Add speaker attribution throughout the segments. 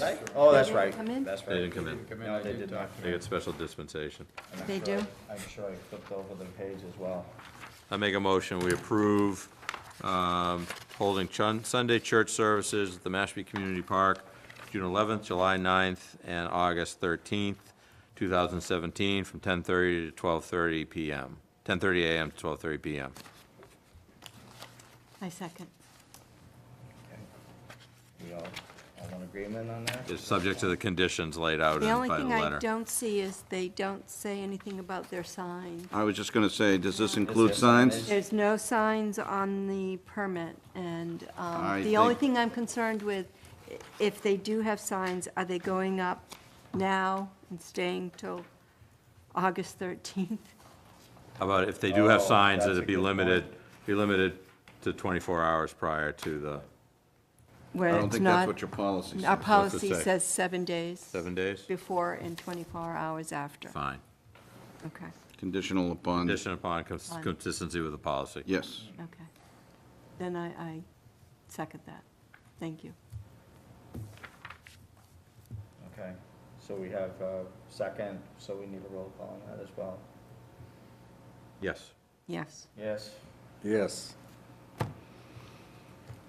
Speaker 1: Right? Oh, that's
Speaker 2: They didn't
Speaker 1: right.
Speaker 2: come in?
Speaker 1: That's right.
Speaker 3: They didn't come in.
Speaker 1: No, they did not.
Speaker 3: They got special dispensation.
Speaker 1: And I'm
Speaker 2: They
Speaker 1: sure I-
Speaker 2: do?
Speaker 1: I'm sure I flipped over the page as well.
Speaker 3: I make a motion, we approve um, holding chun- Sunday church services at the Mashpee Community Park, June 11th, July 9th, and August 13th, 2017, from 10:30 to 12:30 PM, 10:30 a.m. to 12:30 p.m.
Speaker 2: I second.
Speaker 1: We all, all in agreement on that?
Speaker 3: It's subject to the conditions laid out
Speaker 2: The
Speaker 3: in-
Speaker 2: only
Speaker 3: by the
Speaker 2: thing I
Speaker 3: letter.
Speaker 2: don't see is they don't say anything about their sign.
Speaker 4: I was just going to say, does this
Speaker 1: there
Speaker 4: include signs?
Speaker 2: There's no signs on the permit, and um,
Speaker 4: I
Speaker 2: the only
Speaker 4: think-
Speaker 2: thing I'm concerned with, i- if they do have signs, are they going up now and staying till August 13th?
Speaker 3: How about if they do have
Speaker 1: Oh,
Speaker 3: signs, that
Speaker 1: that's a
Speaker 3: it be
Speaker 1: good
Speaker 3: limited, be limited to 24 hours prior to the
Speaker 4: I
Speaker 2: Where
Speaker 4: don't
Speaker 2: it's
Speaker 4: think that's
Speaker 2: not,
Speaker 4: what your policy
Speaker 2: our
Speaker 4: says.
Speaker 2: policy
Speaker 3: say?
Speaker 2: says seven days
Speaker 3: seven days?
Speaker 2: before and 24 hours after.
Speaker 3: Fine.
Speaker 2: Okay,
Speaker 4: Conditional upon,
Speaker 3: Condition upon cons-
Speaker 2: Fine.
Speaker 3: consistency with the policy.
Speaker 4: yes.
Speaker 2: okay. Then I, I second that. Thank you.
Speaker 1: Okay, so we have uh second, so we need a roll call on that as well.
Speaker 3: Yes.
Speaker 2: Yes.
Speaker 1: Yes?
Speaker 5: Yes.
Speaker 1: All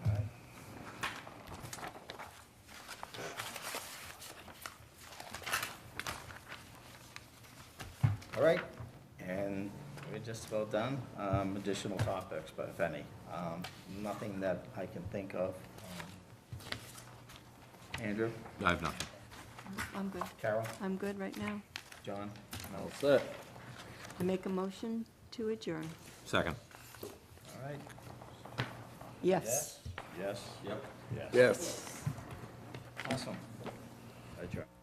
Speaker 1: right. All right, and we're just about done. Um, Additional topics, but if any. Um, Nothing that I can think of. Um, Andrew,
Speaker 3: I have nothing.
Speaker 2: I'm good.
Speaker 1: Carol,
Speaker 2: I'm good right now.
Speaker 1: John? No.
Speaker 5: That's it.
Speaker 2: I Make a motion to adjourn.
Speaker 3: Second.
Speaker 1: All right.
Speaker 2: Yes.
Speaker 1: Yes? Yes.
Speaker 3: Yep.
Speaker 5: Yes.
Speaker 1: Awesome. Adjourn.